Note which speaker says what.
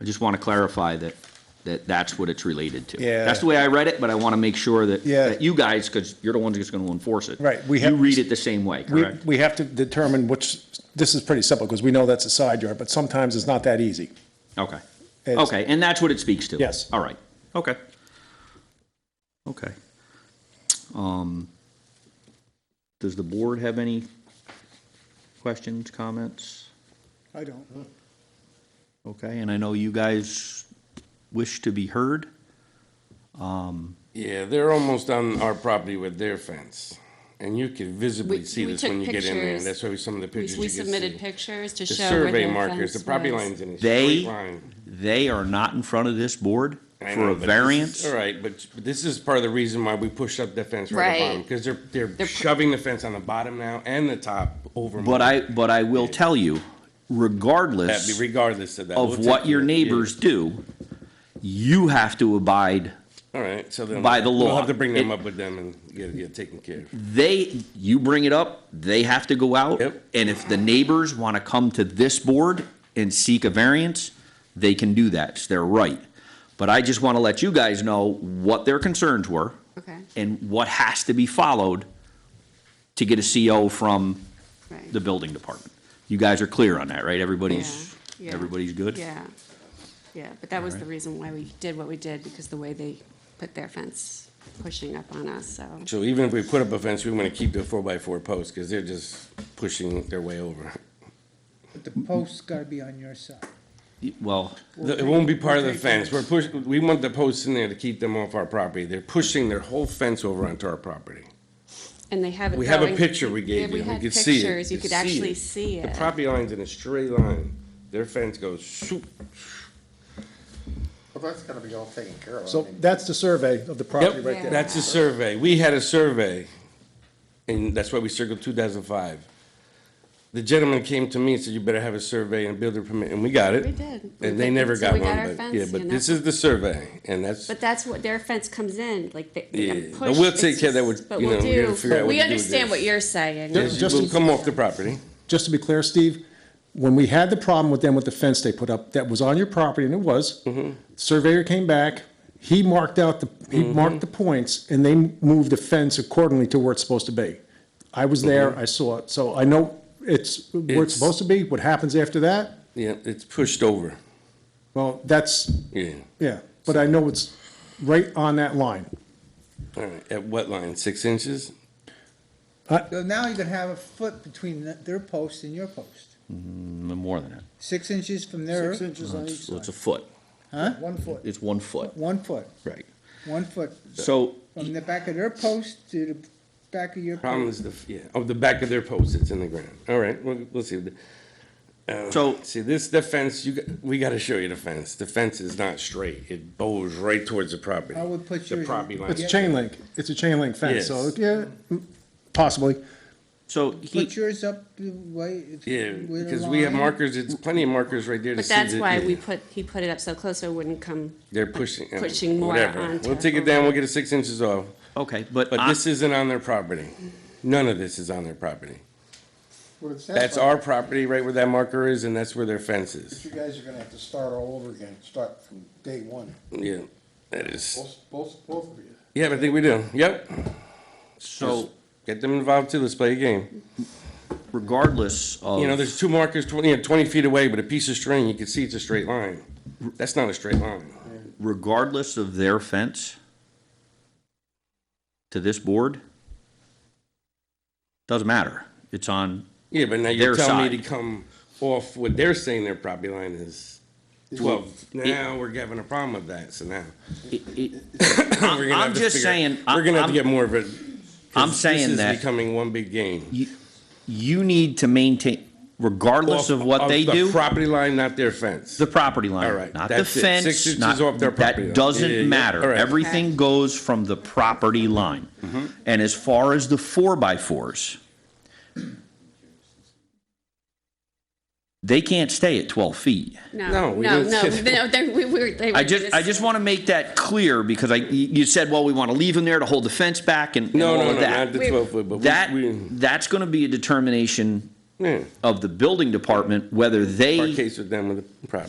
Speaker 1: I just want to clarify that, that that's what it's related to.
Speaker 2: Yeah.
Speaker 1: That's the way I read it, but I want to make sure that,
Speaker 2: Yeah.
Speaker 1: that you guys, because you're the ones that's going to enforce it.
Speaker 2: Right, we
Speaker 1: You
Speaker 2: have-
Speaker 1: read it the same way,
Speaker 2: We,
Speaker 1: correct?
Speaker 2: we have to determine which, this is pretty simple, because we know that's a side yard, but sometimes it's not that easy.
Speaker 1: Okay.
Speaker 2: It's-
Speaker 1: Okay, and that's what it speaks to?
Speaker 2: Yes.
Speaker 1: All right, okay. Okay. Um, does the board have any questions, comments?
Speaker 3: I don't.
Speaker 1: Okay, and I know you guys wish to be heard.
Speaker 4: Yeah, they're almost on our property with their fence. And you can visibly
Speaker 5: We-
Speaker 4: see
Speaker 5: we
Speaker 4: this
Speaker 5: took
Speaker 4: when you get in there.
Speaker 5: pictures.
Speaker 4: That's why some of the
Speaker 5: We-
Speaker 4: pictures you
Speaker 5: We
Speaker 4: can
Speaker 5: submitted
Speaker 4: see.
Speaker 5: pictures to
Speaker 4: The
Speaker 5: show where
Speaker 4: survey
Speaker 5: their
Speaker 4: markers, the
Speaker 5: fence
Speaker 4: property
Speaker 5: was.
Speaker 4: line's in a straight
Speaker 1: They,
Speaker 4: line.
Speaker 1: they are not in front of this board
Speaker 4: I
Speaker 1: for
Speaker 4: know,
Speaker 1: a
Speaker 4: but this is-
Speaker 1: variance.
Speaker 4: All right, but but this is part of the reason why we pushed up the fence right at the bottom.
Speaker 5: Right.
Speaker 4: Because they're, they're
Speaker 5: They're-
Speaker 4: shoving the fence on the bottom now and the top over.
Speaker 1: But
Speaker 4: my-
Speaker 1: I, but I will tell you,
Speaker 4: That'd
Speaker 1: regardless
Speaker 4: be Regardless of that.
Speaker 1: of
Speaker 4: We'll take
Speaker 1: what your
Speaker 4: it. Yeah.
Speaker 1: neighbors do, you have to abide,
Speaker 4: All right, so then.
Speaker 1: by the
Speaker 4: We'll
Speaker 1: law.
Speaker 4: have to bring them
Speaker 1: It-
Speaker 4: up with them and get get taken care of.
Speaker 1: they, you bring it up, they have to go out.
Speaker 4: Yep.
Speaker 1: And if the neighbors want to come to this board and seek a variance, they can do that, it's their right. But I just want to let you guys know what their concerns were.
Speaker 5: Okay,
Speaker 1: and what has to be followed to get a CO from
Speaker 5: right.
Speaker 1: the building department. You guys are clear on that, right? Everybody's,
Speaker 5: Yeah, yeah.
Speaker 1: everybody's good?
Speaker 5: Yeah, yeah, but that was the reason why we did what we did, because the way they put their fence pushing up on us, so.
Speaker 4: So even if we put up a fence, we want to keep the four by four posts because they're just pushing their way over.
Speaker 3: But the post's gotta be on your side.
Speaker 1: Well,
Speaker 4: The- It won't be part of the
Speaker 3: Okay.
Speaker 4: fence. We're push, we want the posts in there to keep them off our property. They're pushing their whole fence over onto our property.
Speaker 5: And they have it
Speaker 4: We have a
Speaker 5: going-
Speaker 4: picture we
Speaker 5: Yeah,
Speaker 4: gave
Speaker 5: we
Speaker 4: you. We
Speaker 5: had
Speaker 4: could see it.
Speaker 5: pictures. You could actually see
Speaker 4: The
Speaker 5: it.
Speaker 4: property line's in a straight line. Their fence goes shoop.
Speaker 6: Well, that's gotta be all taken care of. I
Speaker 2: So
Speaker 6: mean,
Speaker 2: that's the survey of the property right there.
Speaker 4: That's a survey. We had a survey, and that's why we circled two thousand five. The gentleman came to me and said, you better have a survey and builder permit, and we got it.
Speaker 5: We did. We
Speaker 4: And they
Speaker 5: did.
Speaker 4: never
Speaker 5: So
Speaker 4: got
Speaker 5: we got our
Speaker 4: one, but, yeah,
Speaker 5: fence,
Speaker 4: but
Speaker 5: you
Speaker 4: this
Speaker 5: know.
Speaker 4: is the survey, and that's,
Speaker 5: But that's what, their fence comes in, like they,
Speaker 4: Yeah,
Speaker 5: they
Speaker 4: but
Speaker 5: push.
Speaker 4: we'll
Speaker 5: it's
Speaker 4: take care of that
Speaker 5: just-
Speaker 4: with-
Speaker 5: but
Speaker 4: you
Speaker 5: we'll
Speaker 4: know, we gotta
Speaker 5: do-
Speaker 4: figure out what
Speaker 5: We
Speaker 4: to do with
Speaker 5: understand
Speaker 4: this.
Speaker 5: what you're saying.
Speaker 2: Just-
Speaker 4: it will come off the property.
Speaker 2: Just to be clear, Steve, when we had the problem with them with the fence they put up, that was on your property, and it was. Surveyor came back, he marked out the, he marked the points, and they moved the fence accordingly to where it's supposed to be. I was there, I saw it, so I know it's where
Speaker 4: It's-
Speaker 2: it's supposed to be, what happens after that,
Speaker 4: Yeah, it's pushed over,
Speaker 2: well, that's,
Speaker 4: yeah.
Speaker 2: yeah, but I know it's right on that line.
Speaker 4: All right, at what line, six inches?
Speaker 3: So now you can have a foot between th- their post and your post.
Speaker 1: more than that.
Speaker 3: Six inches from their,
Speaker 6: Six inches on each
Speaker 1: So it's
Speaker 6: side,
Speaker 1: a foot.
Speaker 3: huh?
Speaker 6: one foot.
Speaker 1: It's one foot.
Speaker 3: One foot,
Speaker 1: Right.
Speaker 3: one foot
Speaker 1: So,
Speaker 3: from the back of their post to the back of your
Speaker 4: Problem
Speaker 3: post.
Speaker 4: is the, yeah, oh, the back of their post, it's in the ground. All right, we'll, we'll see. Uh,
Speaker 1: So-
Speaker 4: See, this, the fence, you, got- we gotta show you the fence. The fence is not straight. It bows right towards the property.
Speaker 3: I would put
Speaker 4: The
Speaker 3: yours-
Speaker 4: property line.
Speaker 2: It's a chain link, it's a chain link fence, so, yeah, possibly.
Speaker 1: so
Speaker 3: Put
Speaker 1: he,
Speaker 3: yours up the way. it's
Speaker 4: Yeah,
Speaker 3: with a
Speaker 4: because we have
Speaker 3: line.
Speaker 4: markers, it's plenty of markers right there to
Speaker 5: But
Speaker 4: see.
Speaker 5: that's
Speaker 4: that-
Speaker 5: why
Speaker 4: yeah,
Speaker 5: we put, he put it up so close so it wouldn't come.
Speaker 4: They're pushing. uh,
Speaker 5: pushing more
Speaker 4: whatever.
Speaker 5: onto-
Speaker 4: We'll take it down, we'll get it six inches off.
Speaker 1: okay, but,
Speaker 4: But
Speaker 1: I-
Speaker 4: this isn't on their property. None of this is on their property.
Speaker 6: What it sounds
Speaker 4: That's
Speaker 6: like
Speaker 4: our property, right where that marker is, and that's where their fence
Speaker 6: is
Speaker 4: is.
Speaker 6: You guys are gonna have to start all over again, start from day one,
Speaker 4: Yeah, that is.
Speaker 6: both, both, both of you.
Speaker 4: Yeah, but I think we do. Yep.
Speaker 1: so
Speaker 4: Get them involved too. Let's play a game.
Speaker 1: regardless of.
Speaker 4: You know, there's two markers 20, you know, 20 feet away, but a piece of string, you can see it's a straight line. That's not a straight line.
Speaker 1: regardless of their fence to this board, doesn't matter. It's on,
Speaker 4: Yeah, but now
Speaker 1: Their
Speaker 4: you're telling me
Speaker 1: side.
Speaker 4: to come off what they're saying their property line is 12. Now we're having a problem with that. So now
Speaker 1: it, it,
Speaker 4: we're gonna
Speaker 1: I'm
Speaker 4: have to
Speaker 1: just
Speaker 4: figure-
Speaker 1: saying,
Speaker 4: we're going to have
Speaker 1: I'm-
Speaker 4: to get more of it.
Speaker 1: I'm saying
Speaker 4: this is
Speaker 1: that-
Speaker 4: becoming one big game.
Speaker 1: you, you need to maintain, regardless
Speaker 4: Off-
Speaker 1: of what
Speaker 4: off
Speaker 1: they
Speaker 4: the
Speaker 1: do,
Speaker 4: property line, not their fence.
Speaker 1: the property line.
Speaker 4: All right,
Speaker 1: Not the
Speaker 4: that's it.
Speaker 1: fence.
Speaker 4: Six inches
Speaker 1: not-
Speaker 4: off their property line.
Speaker 1: That
Speaker 4: Yeah, yeah, yeah.
Speaker 1: doesn't
Speaker 4: All
Speaker 1: matter.
Speaker 4: right. Mm-hmm.
Speaker 1: Everything goes from the property line. And as far as the four by fours, they can't stay at twelve feet.
Speaker 4: No,
Speaker 5: No,
Speaker 4: we
Speaker 5: no,
Speaker 4: don't
Speaker 5: no,
Speaker 4: say that.
Speaker 5: no, they, we were, they were.
Speaker 1: I just, I just want to make that clear because I, you said, well, we want to leave them there to hold the fence back and and
Speaker 4: no,
Speaker 1: all
Speaker 4: no,
Speaker 1: of
Speaker 4: no, not
Speaker 1: that.
Speaker 4: the 12 foot, but we-
Speaker 1: That,
Speaker 4: we,
Speaker 1: that's going to be a determination
Speaker 4: yeah.
Speaker 1: of the building department, whether they.
Speaker 4: our case with them with the property.